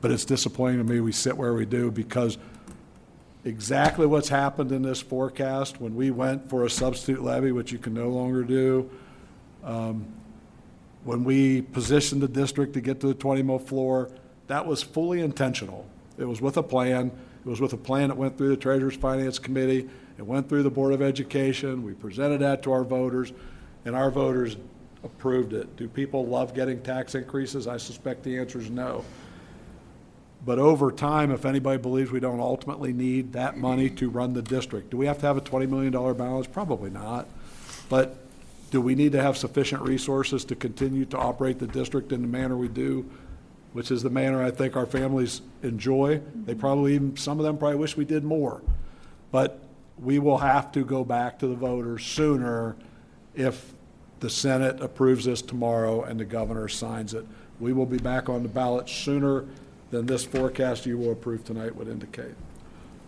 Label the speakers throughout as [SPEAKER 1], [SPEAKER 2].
[SPEAKER 1] but it's disappointing to me we sit where we do because exactly what's happened in this forecast, when we went for a substitute levy, which you can no longer do, um, when we positioned the district to get to the 20-mil floor, that was fully intentional. It was with a plan. It was with a plan that went through the Treasurers Finance Committee. It went through the Board of Education. We presented that to our voters, and our voters approved it. Do people love getting tax increases? I suspect the answer is no. But over time, if anybody believes we don't ultimately need that money to run the district, do we have to have a $20 million balance? Probably not. But do we need to have sufficient resources to continue to operate the district in the manner we do, which is the manner I think our families enjoy? They probably, even some of them probably wish we did more. But we will have to go back to the voters sooner if the Senate approves this tomorrow and the governor signs it. We will be back on the ballot sooner than this forecast you will approve tonight would indicate.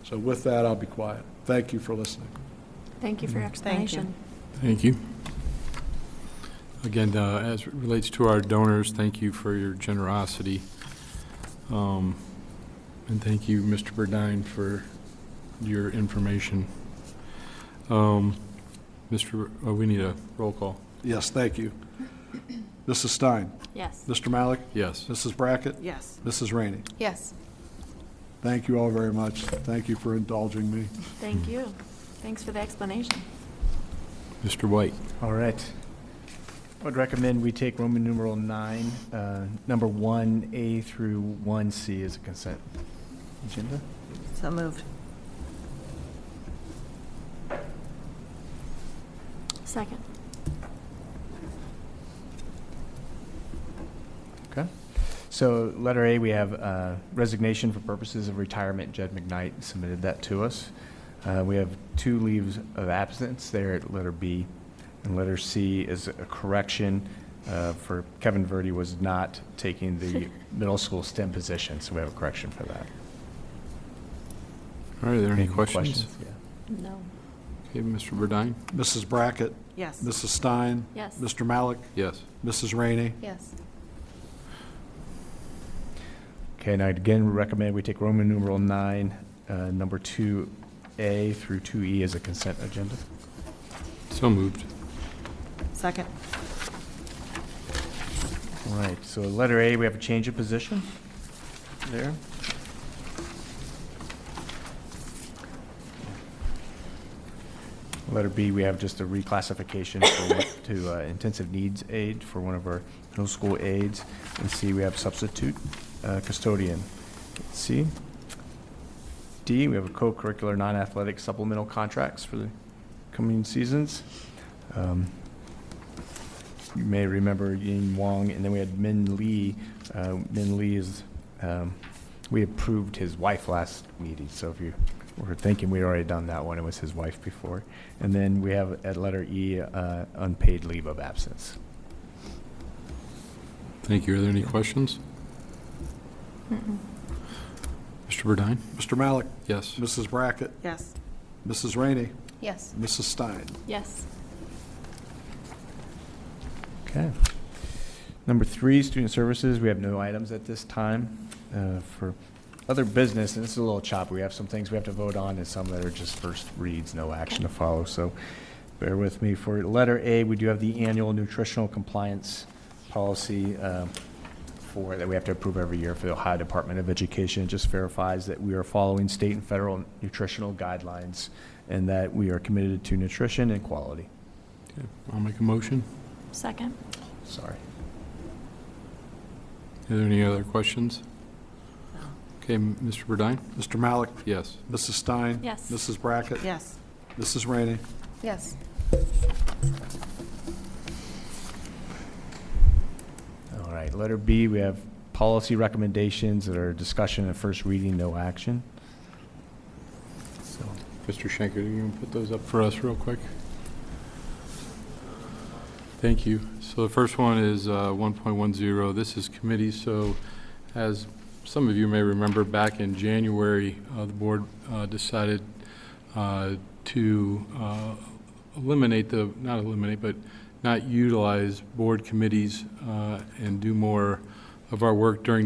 [SPEAKER 1] So with that, I'll be quiet. Thank you for listening.
[SPEAKER 2] Mm-hmm. Thank you for your explanation.
[SPEAKER 3] Thank you. Again, uh, as it relates to our donors, thank you for your generosity. Um, And thank you, Mr. Burdine, for your information. Um, Mr., oh, we need a roll call.
[SPEAKER 1] Yes, thank you. Mrs. Stein,
[SPEAKER 2] Yes.
[SPEAKER 1] Mr. Malik,
[SPEAKER 3] Yes.
[SPEAKER 1] Mrs. Brackett,
[SPEAKER 4] Yes.
[SPEAKER 1] Mrs. Rainey.
[SPEAKER 4] Yes.
[SPEAKER 1] Thank you all very much. Thank you for indulging me.
[SPEAKER 2] Thank you. Thanks for the explanation.
[SPEAKER 3] Mr. White.
[SPEAKER 5] All right. I would recommend we take Roman numeral nine, uh, number one A through one C as a consent agenda.
[SPEAKER 4] So moved.
[SPEAKER 2] Second.
[SPEAKER 5] Okay. So letter A, we have uh, resignation for purposes of retirement. Jed McKnight submitted that to us. Uh, We have two leaves of absence there at letter B. And letter C is a correction uh, for Kevin Verdi was not taking the middle school STEM position, so we have a correction for that.
[SPEAKER 3] All right, are there any questions?
[SPEAKER 5] Yeah.
[SPEAKER 2] No.
[SPEAKER 3] Okay, Mr. Burdine?
[SPEAKER 1] Mrs. Brackett,
[SPEAKER 4] Yes.
[SPEAKER 1] Mrs. Stein,
[SPEAKER 2] Yes.
[SPEAKER 1] Mr. Malik,
[SPEAKER 3] Yes.
[SPEAKER 1] Mrs. Rainey.
[SPEAKER 4] Yes.
[SPEAKER 5] Okay, and I'd again recommend we take Roman numeral nine, uh, number two A through two E as a consent agenda.
[SPEAKER 3] So moved.
[SPEAKER 4] Second.
[SPEAKER 5] All right, so letter A, we have a change of position there. Letter B, we have just a reclassification for- to uh, intensive needs aid for one of our middle school aides. And C, we have substitute uh, custodian. C. D, we have a co-curricular non-athletic supplemental contracts for the coming seasons. Um, you may remember Yin Wong, and then we had Min Lee. Uh, Min Lee is, um, we approved his wife last meeting, so if you were thinking, we'd already done that one, it was his wife before. And then we have at letter E, uh, unpaid leave of absence.
[SPEAKER 3] Thank you. Are there any questions?
[SPEAKER 2] Mm-mm.
[SPEAKER 3] Mr. Burdine?
[SPEAKER 1] Mr. Malik,
[SPEAKER 3] Yes.
[SPEAKER 1] Mrs. Brackett,
[SPEAKER 4] Yes.
[SPEAKER 1] Mrs. Rainey,
[SPEAKER 4] Yes.
[SPEAKER 1] Mrs. Stein.
[SPEAKER 2] Yes.
[SPEAKER 5] Okay. Number three, student services, we have no items at this time. Uh, For other business, and this is a little choppy, we have some things we have to vote on and some that are just first reads, no action to follow, so bear with me. For letter A, we do have the annual nutritional compliance policy uh, for, that we have to approve every year for the Ohio Department of Education. It just verifies that we are following state and federal nutritional guidelines and that we are committed to nutrition and quality.
[SPEAKER 3] Okay, I'll make a motion.
[SPEAKER 2] Second.
[SPEAKER 5] Sorry.
[SPEAKER 3] Are there any other questions? Okay, m- Mr. Burdine?
[SPEAKER 1] Mr. Malik,
[SPEAKER 3] Yes.
[SPEAKER 1] Mrs. Stein.
[SPEAKER 2] Yes.
[SPEAKER 1] Mrs. Brackett,
[SPEAKER 4] Yes.
[SPEAKER 1] Mrs. Rainey.
[SPEAKER 4] Yes.
[SPEAKER 5] All right, letter B, we have policy recommendations that are discussion and first reading, no action. So,
[SPEAKER 3] Mr. Shanker, you can put those up for us real quick? Thank you. So the first one is uh, 1.10. This is committee, so as some of you may remember, back in January, uh, the board uh, decided uh, to uh, eliminate the, not eliminate, but not utilize board committees uh, and do more of our work during the